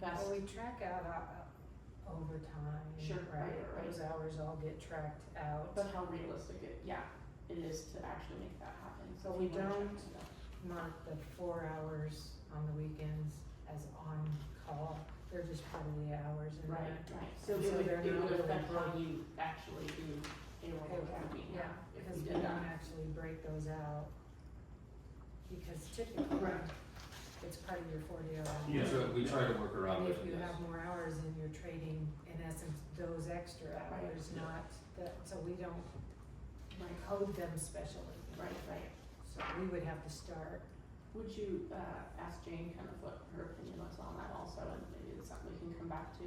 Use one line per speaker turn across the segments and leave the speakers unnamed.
best.
Well, we track out uh, overtime,
Sure,
right,
right, right.
those hours all get tracked out.
But how realistic it, yeah, it is to actually make that happen, so
But
we
we
wanna check
don't-
into that.
Not the four hours on the weekends as on call, they're just part of the hours and
Right,
that.
right, so it
Mm-hmm. So
would,
they're
it
not
would
really
affect how
hot.
you actually do a role
Okay,
movie
yeah,
now, if
because
we
we
did
don't
that.
actually break those out. Because typically,
Right.
it's part of your forty hour.
We
Yeah.
try, we try to work around
And
it,
if you have more hours, then you're trading, in essence, those extra
Right.
hours,
Yeah.
not the, so we don't
Right,
code them specially.
right, right.
So we would have to start,
Would you, uh, ask Jane kind of what her opinion was on that also, and maybe it's something we can come back to?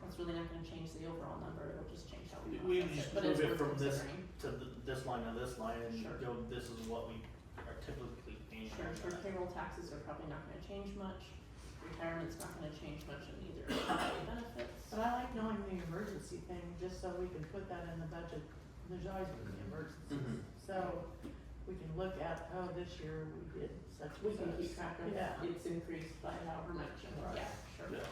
That's really not gonna change the overall number, it'll just change how we
We
process it,
just
but
move
it's
it
worth
from this
considering.
to th- this line to this line and
Sure.
go, this is what we are typically paying.
Sure, sure, payroll taxes are probably not gonna change much, retirement's not gonna change much, and neither are employee benefits.
But I like knowing the emergency thing, just so we can put that in the budget, there's always gonna be
Mm-hmm.
Mm-hmm.
emergencies. So we can look at, oh, this year we did such
We
and
can
such.
keep track of
Yeah.
it's increased by however much, and
Right.
yeah, sure.
Yeah.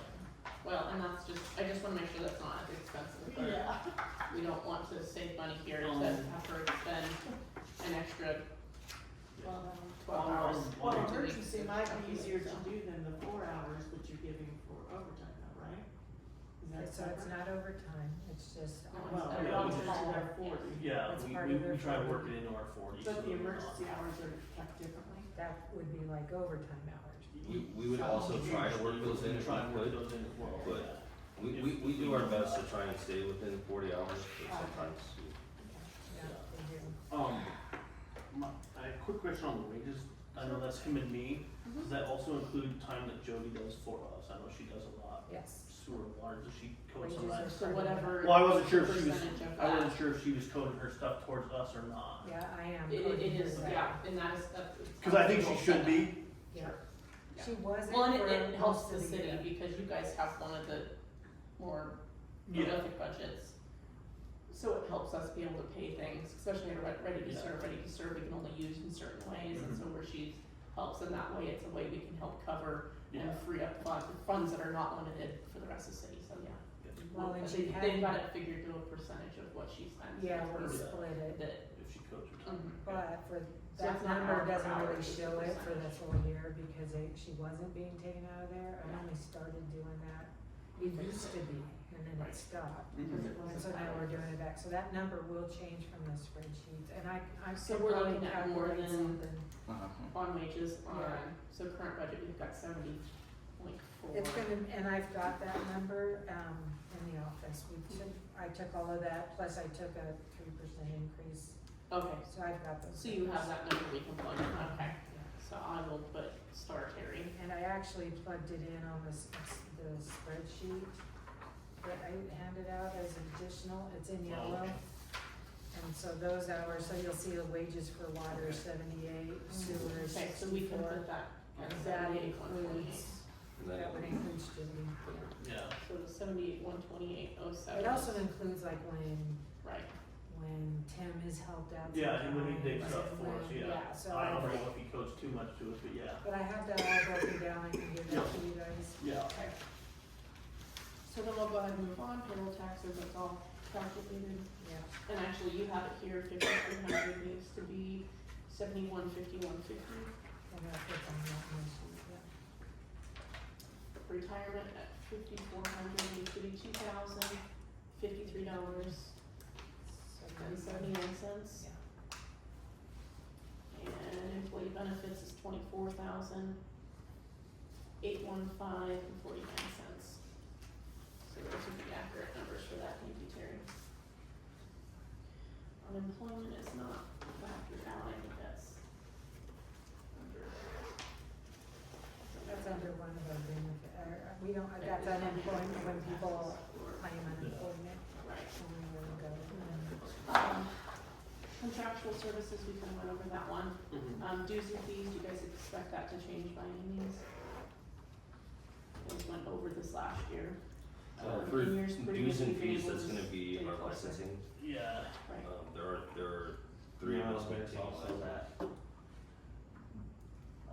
Well, and that's just, I just wanna make sure that's not at the expense of the clerk.
Yeah,
We don't want to save money here to
Um,
have her expend an extra
well, um,
twelve hours.
Well,
to
well,
make
emergency
this
might
calculation,
be easier to
so.
do than the four hours that you're giving for overtime though, right? Is that
so it's
separate?
not overtime, it's just.
No, it's
Well,
not
it
Yeah,
all
we
goes
just-
to their forty,
Yeah,
That's part
we,
of
we,
their
we try to work
forty.
it into our forty. so
but the
we're not-
emergency hours are kept differently.
That would be like overtime hours.
We, we would also try to work those in
We
if we
try to work
could.
those in as well,
but-
yeah.
We, we, we do our best to try and stay within forty hours, but sometimes you
Yeah, they do.
Um, my, I have a quick question on the wages. I know that's him and me. Does that also include time that Jody does for us? I know she does a lot.
Yes.
Sewer and water, does she code
Wages
some of
are
that?
So whatever.
Well, I wasn't sure if she was,
percentage of
I
that.
wasn't sure if she was coding her stuff towards us or not.
Yeah, I am.
It, it- it is,
coordinating
yeah,
that.
and that is, that's.
Cause I think she should be.
Yeah.
Yeah.
She wasn't
Well, and it,
for
it helps
most
the
of
city
year.
because you guys have one of the more
Yeah,
prolific budgets. So it helps us be able to pay things, especially in re- ready to
Yeah. Mm-hmm.
serve, ready to serve, we can only use in certain ways, and so where she helps in that way, it's a way we can help cover
yeah.
and free up fun, funds that are not limited for the rest of the city, so yeah.
Well,
I
and she
think They've got
had,
it figured to a percentage of what she spends.
yeah,
for
we
Yeah.
split it,
That,
If she codes her time.
um,
but for,
So it's
that
not hour
number
per
doesn't
hour,
really
it's
show it for the
percentage.
full year because it, she wasn't being taken out of there. I only started doing that. It used to be and then
Right.
it stopped.
because
Mhm.
it
And
wasn't
so now
highlighted.
we're doing it back. So that number will change from the spreadsheets and I, I
So
could
we're
probably
looking at more
calculate
than-
something.
On wages, on,
Yeah.
so current budget, we've got seventy point four.
It's gonna, and I've got that number, um, in the office, we took, I took all of that, plus I took a three percent increase,
Okay,
so I've got those.
so you have
numbers.
that number we can plug in, okay,
Yeah.
so I will put star Terry.
And I actually plugged it in on the, s- the spreadsheet that I handed out as additional, it's in
Oh,
yellow.
okay.
And so those hours, so you'll see the wages for water is seventy-eight, sewer is
Mm-hmm. Okay, so we can
sixty-four.
put that at
That
seventy-eight, one twenty-eight,
includes,
and then uh,
that would include Jimmy, yeah.
Yeah.
so the seventy-eight, one twenty-eight, oh seven.
It also includes like when
Right,
when Tim has helped out.
Yeah, and when he
sometimes,
digs up for
when-
us, yeah.
Yeah, so
I don't
I,
know if he codes too much to us, but yeah,
but I have that all broken down, I can give that to you guys.
yeah.
okay. So then we'll go ahead and move on, payroll taxes, that's all calculated.
Yeah,
And actually, you have it here, fifty-three hundred needs to be seventy-one fifty-one fifty.
I'm gonna put them on that one sheet, yeah.
Retirement at fifty-four hundred needs to be two thousand fifty-three dollars
So
and
these are-
seventy-nine cents.
Yeah.
And employee benefits is twenty-four thousand eight one five and forty-nine cents. So those would be accurate numbers for that, thank you, Terry. Unemployment is not factored out, I think that's under.
That's under one of our benefit, uh, we don't, uh, that's unemployment, when people claim unemployment,
Right.
when we really go. um,
Um, Contractual services, we kind of went over that one.
Mhm.
Um, dues and fees, do you guys expect that to change by any means? We went over this last year.
Uh,
Um,
for
and yours pretty
dues
much
and
the
fees,
same
that's
was
gonna be in our
pretty close, right?
licensing,
Yeah.
um,
Right,
there are, there are three of
No,
us
there's
maintaining
also
that.
that.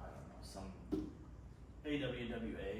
I don't know, some
AWWA